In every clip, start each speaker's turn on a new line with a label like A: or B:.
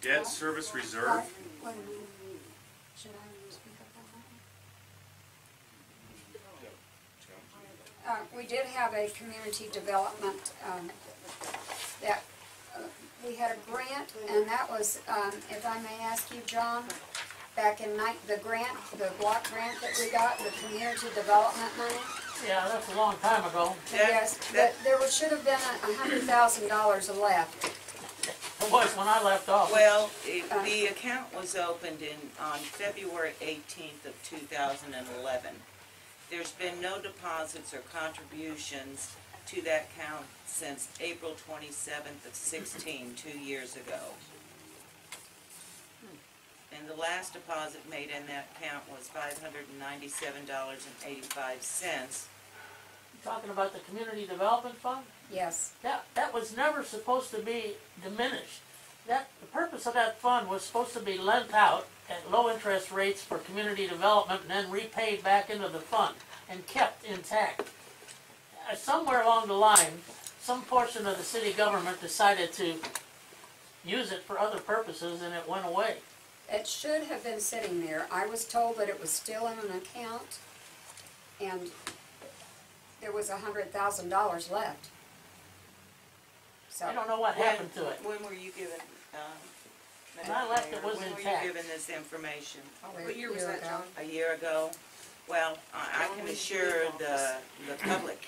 A: debt service reserve.
B: Wait a minute. Should I speak up on that? Uh, we did have a community development, um, that, uh, we had a grant, and that was, um, if I may ask you, John, back in night, the grant, the block grant that we got, the community development money?
C: Yeah, that's a long time ago.
D: That-
B: Yes, but
D: that-
B: there was- should have been a a hundred thousand dollars left.
C: It was when I left office.
D: Well, it- the account was opened in, on February eighteenth of two thousand and eleven. There's been no deposits or contributions to that account since April twenty-seventh of sixteen, two years ago. And the last deposit made in that account was five hundred and ninety-seven dollars and eighty-five cents.
C: Talking about the community development fund,
B: Yes,
C: that, that was never supposed to be diminished. That, the purpose of that fund was supposed to be lent out at low interest rates for community development and then repaid back into the fund and kept intact. Uh, Somewhere along the line, some portion of the city government decided to use it for other purposes and it went away.
B: it should have been sitting there. I was told that it was still in an account, and there was a hundred thousand dollars left. So,
C: I don't know what happened to it.
D: When were you given, um?
C: When I left, it was
D: When were
C: intact.
D: you given this information?
B: over a
E: What year was
B: year
E: that,
B: ago.
E: John?
D: a year ago. Well, I, I can assure the, the public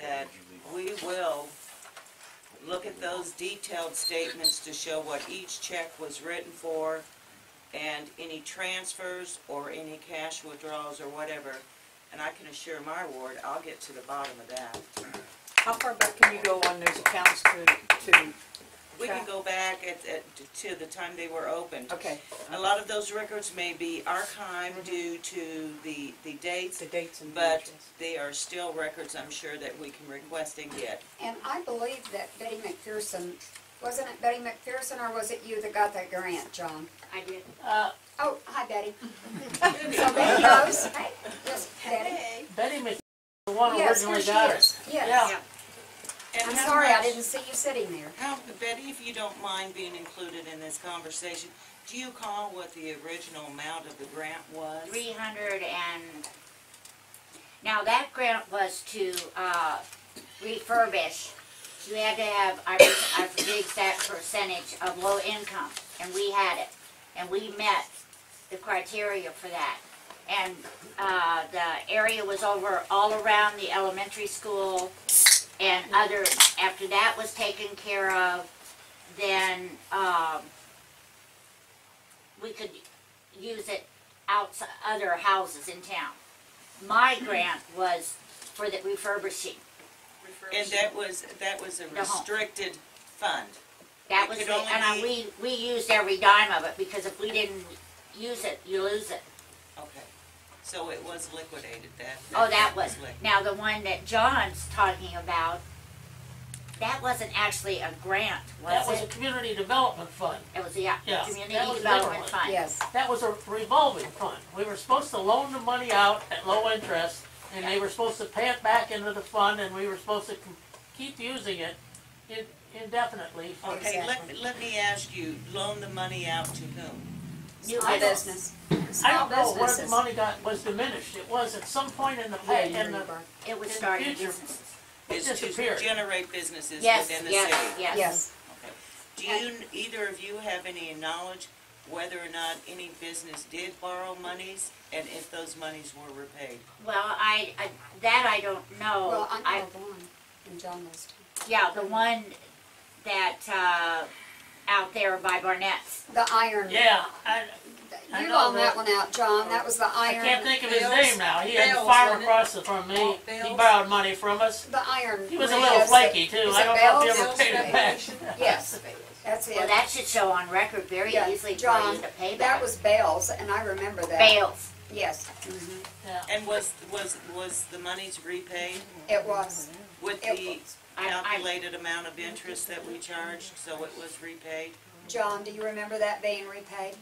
D: that we will look at those detailed statements to show what each check was written for and any transfers or any cash withdrawals or whatever. And I can assure my ward, I'll get to the bottom of that.
E: How far back can you go on those accounts to, to,
D: We can go back at, at, to the time they were opened.
E: okay, Mm-hmm.
D: A lot of those records may be archived due to the, the dates
E: the dates and the
D: But
E: address?
D: they are still records, I'm sure, that we can request and get.
B: And I believe that Betty McPherson, wasn't it Betty McPherson, or was it you that got that grant, John?
F: I did.
C: Uh,
B: Oh, hi Betty. So Betty knows. Yes, Betty.
C: Betty Mc, the one who
B: Yes, here
C: originally
B: she
C: got it.
B: is. Yes.
C: Yeah,
D: And
B: I'm
D: how
B: sorry I
D: much-
B: didn't see you sitting there.
D: How, Betty, if you don't mind being included in this conversation, do you call what the original amount of the grant was?
F: Three hundred and, now that grant was to, uh, refurbish. You had to have, I, I forget that percentage of low income, and we had it. And we met the criteria for that. And, uh, the area was over all around the elementary school and other, after that was taken care of, then, um, we could use it outside other houses in town. My grant was for the refurbishing.
D: And that was, that was a
F: The home.
D: restricted fund.
F: That
D: It
F: was,
D: could
F: the-
D: only
F: and I, we,
D: be-
F: we used every dime of it, because if we didn't use it, you lose it.
D: Okay. So it was liquidated, that.
F: Oh, that was,
D: liquidated.
F: now the one that John's talking about, that wasn't actually a grant,
C: that was
F: was
C: a
F: it?
C: community development fund.
F: It was, yeah,
C: Yeah,
F: community
C: that was
F: development
C: different.
F: fund.
B: Yes.
C: That was a revolving fund. We were supposed to loan the money out at low interest, and they were supposed to pay it back into the fund, and we were supposed to com- keep using it in- indefinitely. for-
D: Okay, let, let me ask you, loan the money out to whom?
F: New
B: Small
F: business.
B: business.
C: I don't know
B: Small
C: where the
B: businesses.
C: money got, was diminished. It was at some point in the
B: Yeah,
C: pay, in the,
B: Nuremberg.
F: It was
C: In the
F: starting
C: future.
F: businesses.
C: it
D: Is
C: disappeared.
D: To generate businesses
F: Yes,
D: within the city.
F: yes, yes.
B: Yes,
D: Do you, either of you have any knowledge whether or not any business did borrow monies and if those monies were repaid?
F: Well, I, I, that I don't know.
B: well,
F: I-
B: Oh, I know one, and John knows two.
F: Yeah, the one that, uh, out there by Barnett's.
B: The iron.
C: Yeah, I, I
B: You
C: know
B: loaned
C: the-
B: that one out, John, that was the
C: I
B: iron.
C: can't think of his
E: Bales.
C: name now. He had a
E: Bales,
C: farm
E: wasn't it?
C: across it from me.
E: Walt
C: He
E: Bales?
C: borrowed money from us.
B: The iron.
C: He was a
B: ring.
C: little
B: Yes,
C: flaky
B: it-
C: too.
B: is
C: I
B: it
C: don't know if
B: Bell's?
C: he ever paid it back.
B: Yes, that's
F: Well,
B: it.
F: that should show on record very
B: Yeah,
F: easily for
B: John,
F: you to pay
B: That
F: back.
B: was Bales, and I remember that.
F: Bales.
B: Yes, mhm.
C: Yeah.
D: And was, was, was the monies repaid
B: it was.
D: with
B: It
D: the
B: was.
F: I, I,
D: calculated amount of interest that we charged, so it was repaid?
B: John, do you remember that being repaid?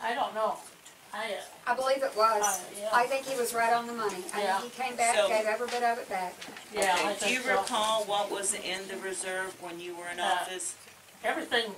C: I don't know. I, uh,
B: I believe it was.
C: Uh, yeah.
B: I think he was right on the money. I
C: Yeah.
B: think he came back,
D: So-
B: gave every bit of it back.
C: yeah,
D: Okay,
C: I
D: Do
C: think
D: you
C: so.
D: recall what was in the reserve when you were in
C: Uh,
D: office?
C: Everything